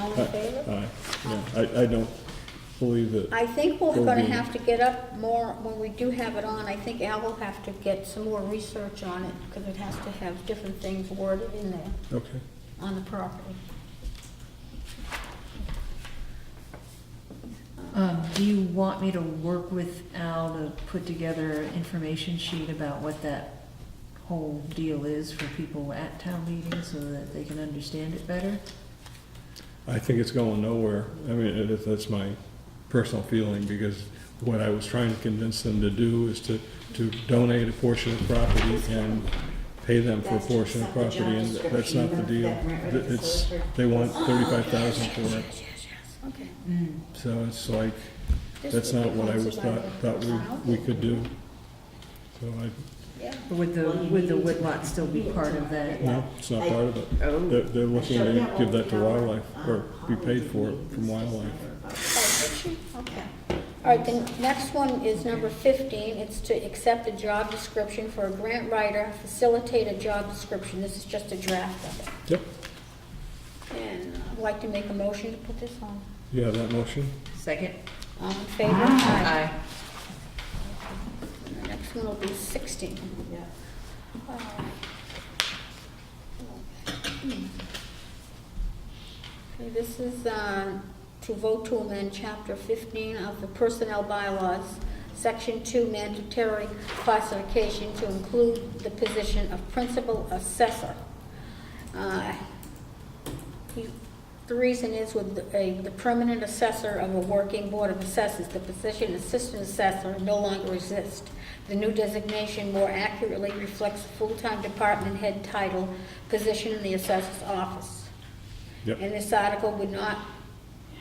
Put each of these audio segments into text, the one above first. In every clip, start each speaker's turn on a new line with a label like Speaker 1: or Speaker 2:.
Speaker 1: All in favor?
Speaker 2: Aye, yeah, I, I don't believe that,
Speaker 1: I think we're
Speaker 2: Will
Speaker 1: gonna
Speaker 2: be-
Speaker 1: have to get up more, when we do have it on, I think Al will have to get some more research on it, because it has to have different things worded in there
Speaker 2: okay.
Speaker 1: on the property.
Speaker 3: Um, do you want me to work with Al to put together an information sheet about what that whole deal is for people at town meetings so that they can understand it better?
Speaker 2: I think it's going nowhere. I mean, it is- that's my personal feeling, because what I was trying to convince them to do is to, to donate a portion of property and pay them for a
Speaker 4: That's
Speaker 2: portion of
Speaker 4: just not the
Speaker 2: property,
Speaker 4: job
Speaker 2: and that's not the
Speaker 4: description,
Speaker 2: deal.
Speaker 4: that rent
Speaker 2: Th- It's,
Speaker 4: was
Speaker 2: they want thirty-five thousand
Speaker 1: Yes,
Speaker 2: for it,
Speaker 1: yes, yes, okay.
Speaker 2: so it's like,
Speaker 1: This
Speaker 2: that's
Speaker 1: would
Speaker 2: not
Speaker 1: be
Speaker 2: what I was thought,
Speaker 1: conservation.
Speaker 2: thought we, we could do. So I,
Speaker 1: Yeah.
Speaker 3: Would the, would the woodlot still be part of that?
Speaker 2: no, it's not part of it. They're,
Speaker 3: Oh,
Speaker 2: they're looking to give that to wildlife, or be paid for it from wildlife.
Speaker 1: Oh, did she? Okay. All right, the next one is number 15. It's to accept a job description for a grant writer, facilitate a job description. This is just a draft of it.
Speaker 2: Yep,
Speaker 1: And I'd like to make a motion to put this on.
Speaker 2: you have that motion?
Speaker 3: second?
Speaker 1: All in favor? Aye.
Speaker 3: Aye.
Speaker 1: And The next one will be 16.
Speaker 4: Yeah.
Speaker 1: All right. Okay, this is uh, to vote to amend Chapter 15 of the Personnel Bylaws, Section 2 mandatory classification to include the position of principal assessor. Uh, he- The reason is with the- a- the permanent assessor of a working board of assessors, the position assistant assessor no longer exists. The new designation more accurately reflects the full-time department head title, position in the assessor's office.
Speaker 2: Yep.
Speaker 1: And this article would not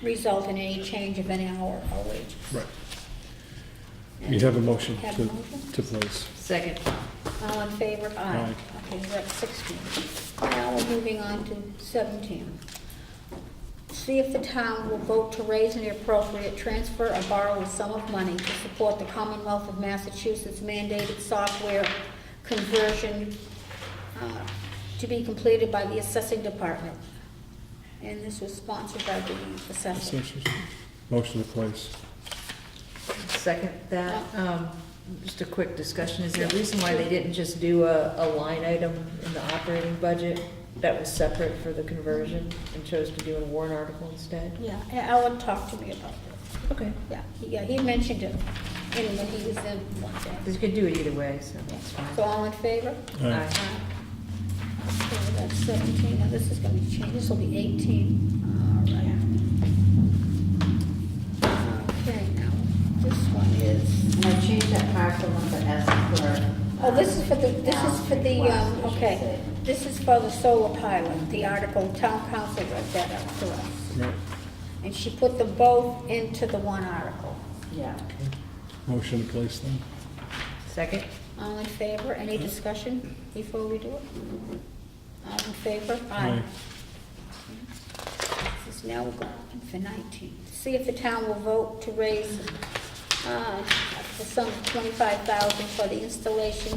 Speaker 1: result in any change of any hour or wage.
Speaker 2: Right. You have a motion
Speaker 1: Have a
Speaker 2: to,
Speaker 1: motion?
Speaker 2: to place.
Speaker 3: Second.
Speaker 1: All in favor? Aye.
Speaker 2: Aye.
Speaker 1: Okay, that's 16. Now we're moving on to 17. See if the town will vote to raise an appropriate transfer or borrow a sum of money to support the Commonwealth of Massachusetts mandated software conversion uh, to be completed by the assessing department. And this was sponsored by the assessor.
Speaker 2: Motion to place.
Speaker 3: Second that, um, just a quick discussion, is there a reason why they didn't just do a, a line item in the operating budget that was separate for the conversion and chose to do a warrant article instead?
Speaker 1: Yeah, Alan talked to me about this.
Speaker 3: Okay.
Speaker 1: Yeah, he- yeah, he mentioned it in when he was in one day.
Speaker 3: Because you could do it either way, so that's
Speaker 1: So
Speaker 3: fine.
Speaker 1: all in favor?
Speaker 2: Aye.
Speaker 1: Okay, that's 17, now this is gonna be changed, this will be 18, all right. Okay, now, this one is,
Speaker 4: And I changed that parcel number S for.
Speaker 1: oh, this is for the, this is for the, um,
Speaker 4: Request, I should
Speaker 1: okay,
Speaker 4: say.
Speaker 1: this is for the solar pilot, the article, town council read that out for us.
Speaker 2: Right.
Speaker 1: And she put them both into the one article.
Speaker 4: Yeah.
Speaker 2: Motion to place then?
Speaker 3: Second?
Speaker 1: All in favor, any discussion before we do it? All in favor?
Speaker 2: Aye.
Speaker 1: This is now we're going on for 19. See if the town will vote to raise uh, the sum of 25000 for the installation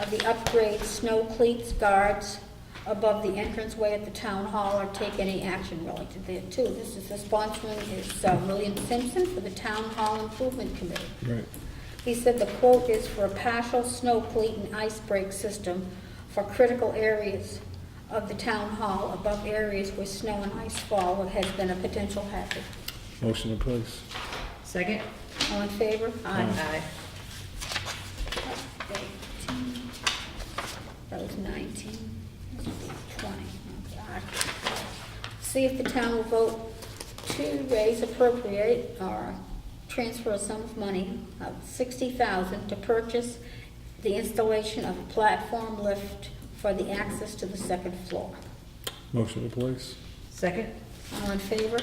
Speaker 1: of the upgrade snow cleats guards above the entranceway at the town hall or take any action related thereto. This is, the sponsoring is uh, William Simpson for the Town Hall Improvement Committee.
Speaker 2: Right.
Speaker 1: He said the quote is for a partial snow cleat and ice break system for critical areas of the town hall above areas where snow and ice fall or has been a potential hazard.
Speaker 2: Motion to place.
Speaker 3: Second?
Speaker 1: All in favor?
Speaker 3: Aye.
Speaker 1: Eighteen. That was nineteen. This would be Twenty. Okay, alright. See if the town will vote to raise appropriate or transfer a sum of money of sixty thousand to purchase the installation of a platform lift for the access to the second floor.
Speaker 2: Motion to place.
Speaker 3: Second?
Speaker 1: All in favor?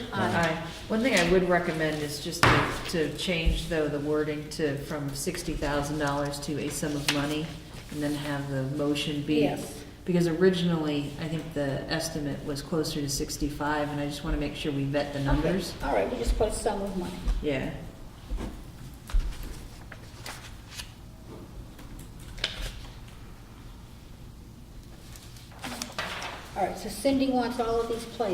Speaker 3: One thing I would recommend is just to, to change though the wording to, from sixty thousand dollars to a sum of money and then have the motion be.
Speaker 1: Yes.
Speaker 3: Because originally, I think the estimate was closer to sixty-five and I just want to make sure we vet the numbers.
Speaker 1: All right, we just put a sum of money.
Speaker 3: Yeah.
Speaker 1: All right, so Cindy wants all of these places.